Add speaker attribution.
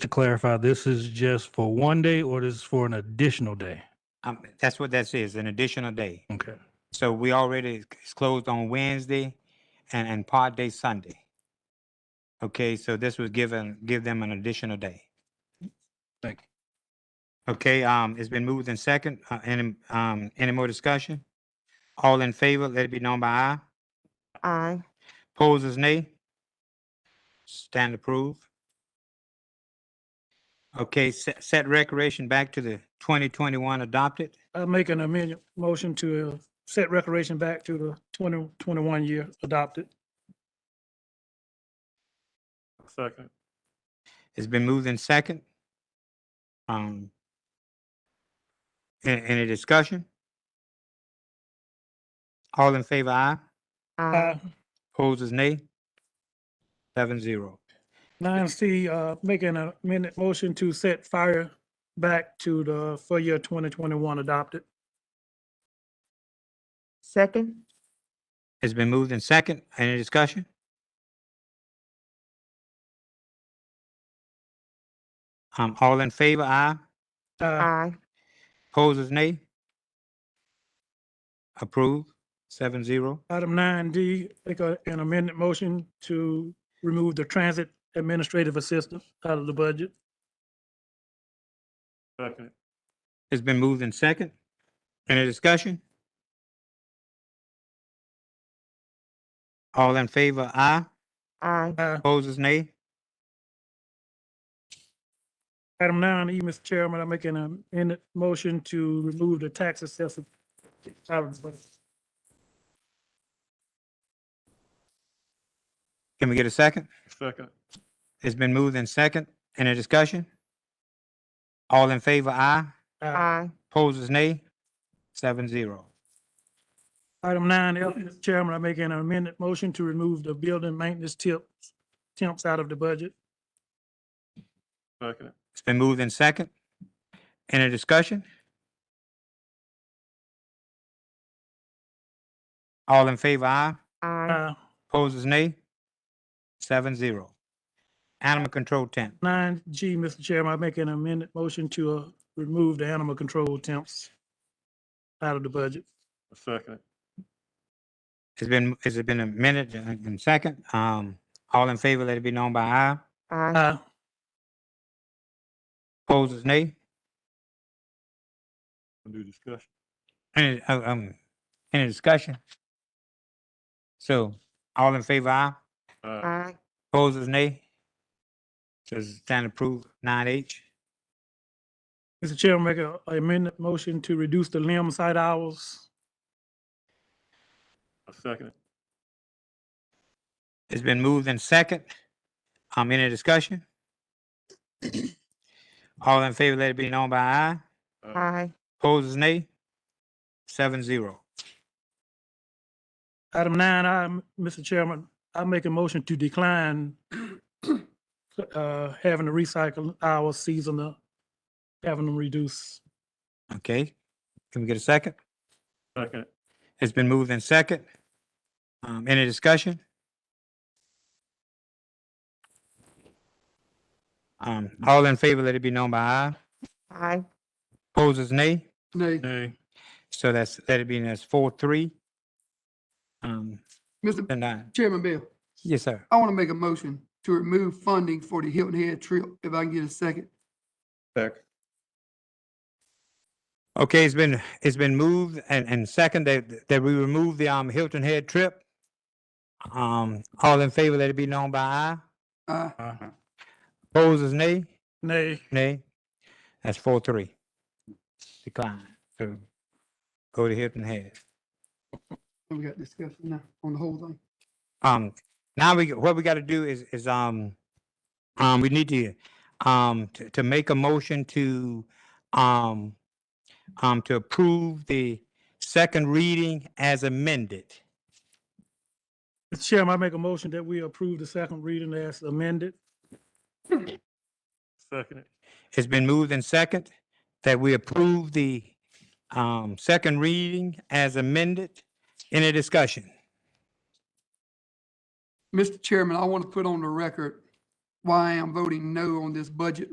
Speaker 1: to clarify, this is just for one day or this is for an additional day?
Speaker 2: Um, that's what that says, an additional day.
Speaker 1: Okay.
Speaker 2: So we already, it's closed on Wednesday and, and part day Sunday. Okay, so this was given, give them an additional day.
Speaker 1: Thank you.
Speaker 2: Okay, um, it's been moved in second, uh, any, um, any more discussion? All in favor, let it be known by aye.
Speaker 3: Aye.
Speaker 2: Poses nay. Stand approved. Okay, set, set recreation back to the twenty twenty-one adopted.
Speaker 4: I make an amendment motion to uh, set recreation back to the twenty twenty-one year adopted.
Speaker 1: Second.
Speaker 2: It's been moved in second. Um. a- Any discussion? All in favor, aye.
Speaker 4: Uh,
Speaker 3: Aye.
Speaker 2: Poses nay. Seven zero.
Speaker 4: Nine C, uh, making an amendment motion to set fire back to the, for year twenty twenty-one adopted.
Speaker 3: Second.
Speaker 2: It's been moved in second. Any discussion? Um, all in favor, aye.
Speaker 4: Uh,
Speaker 3: Aye.
Speaker 2: Poses nay. Approved, seven zero.
Speaker 4: item nine D, make a- an amendment motion to remove the transit administrative assistant out of the budget.
Speaker 1: Second.
Speaker 2: It's been moved in second. Any discussion? All in favor, aye.
Speaker 3: Aye.
Speaker 4: Uh,
Speaker 2: Poses nay.
Speaker 4: Item nine E, Mr. Chairman, I'm making an amendment motion to remove the tax assessor out of the budget.
Speaker 2: Can we get a second?
Speaker 1: Second.
Speaker 2: It's been moved in second. Any discussion? All in favor, aye.
Speaker 4: Uh,
Speaker 3: Aye.
Speaker 2: Poses nay. Seven zero.
Speaker 4: Item nine F, Mr. Chairman, I'm making an amendment motion to remove the building maintenance tips, temps out of the budget.
Speaker 1: Second.
Speaker 2: It's been moved in second. Any discussion? All in favor, aye.
Speaker 3: Aye.
Speaker 4: Uh,
Speaker 2: Poses nay. Seven zero. Animal control tent.
Speaker 4: nine G, Mr. Chairman, I'm making an amendment motion to, uh, remove the animal control temps out of the budget.
Speaker 1: Second.
Speaker 2: It's been, it's been a minute and and second. Um, all in favor, let it be known by aye.
Speaker 3: Aye.
Speaker 4: Uh,
Speaker 2: Poses nay.
Speaker 1: Do discussion.
Speaker 2: Any, uh, um, any discussion? So, all in favor, aye.
Speaker 4: uh,
Speaker 3: Aye.
Speaker 2: Poses nay. Does stand approved, nine H.
Speaker 4: Mr. Chairman, make a a amendment motion to reduce the limb site hours.
Speaker 1: Second.
Speaker 2: It's been moved in second. Um, any discussion? All in favor, let it be known by aye.
Speaker 3: Aye.
Speaker 2: Poses nay. Seven zero.
Speaker 4: Item nine, I, Mr. Chairman, I make a motion to decline uh, having to recycle hours seasonal, having them reduce.
Speaker 2: Okay, can we get a second?
Speaker 1: Second.
Speaker 2: It's been moved in second. Um, any discussion? Um, all in favor, let it be known by aye.
Speaker 3: Aye.
Speaker 2: Poses nay.
Speaker 5: Nay,
Speaker 1: Nay.
Speaker 2: So that's, let it be, that's four, three. Um,
Speaker 5: Mr.
Speaker 2: and nine.
Speaker 5: Chairman Bill,
Speaker 2: Yes, sir.
Speaker 5: I want to make a motion to remove funding for the Hilton Head trip, if I can get a second.
Speaker 1: Second.
Speaker 2: Okay, it's been, it's been moved and, and second that, that we remove the, um, Hilton Head trip. Um, all in favor, let it be known by aye.
Speaker 5: Aye.
Speaker 1: Uh-huh.
Speaker 2: Poses nay.
Speaker 4: Nay,
Speaker 2: Nay. That's four, three. Decline. So go to Hilton Head.
Speaker 5: We got discussion now on the whole thing.
Speaker 2: Um, now we, what we gotta do is, is, um, um, we need to, um, to, to make a motion to, um, um, to approve the second reading as amended.
Speaker 4: Mr. Chairman, I make a motion that we approve the second reading as amended.
Speaker 1: Second.
Speaker 2: It's been moved and second that we approve the, um, second reading as amended. Any discussion?
Speaker 5: Mr. Chairman, I want to put on the record why I am voting no on this budget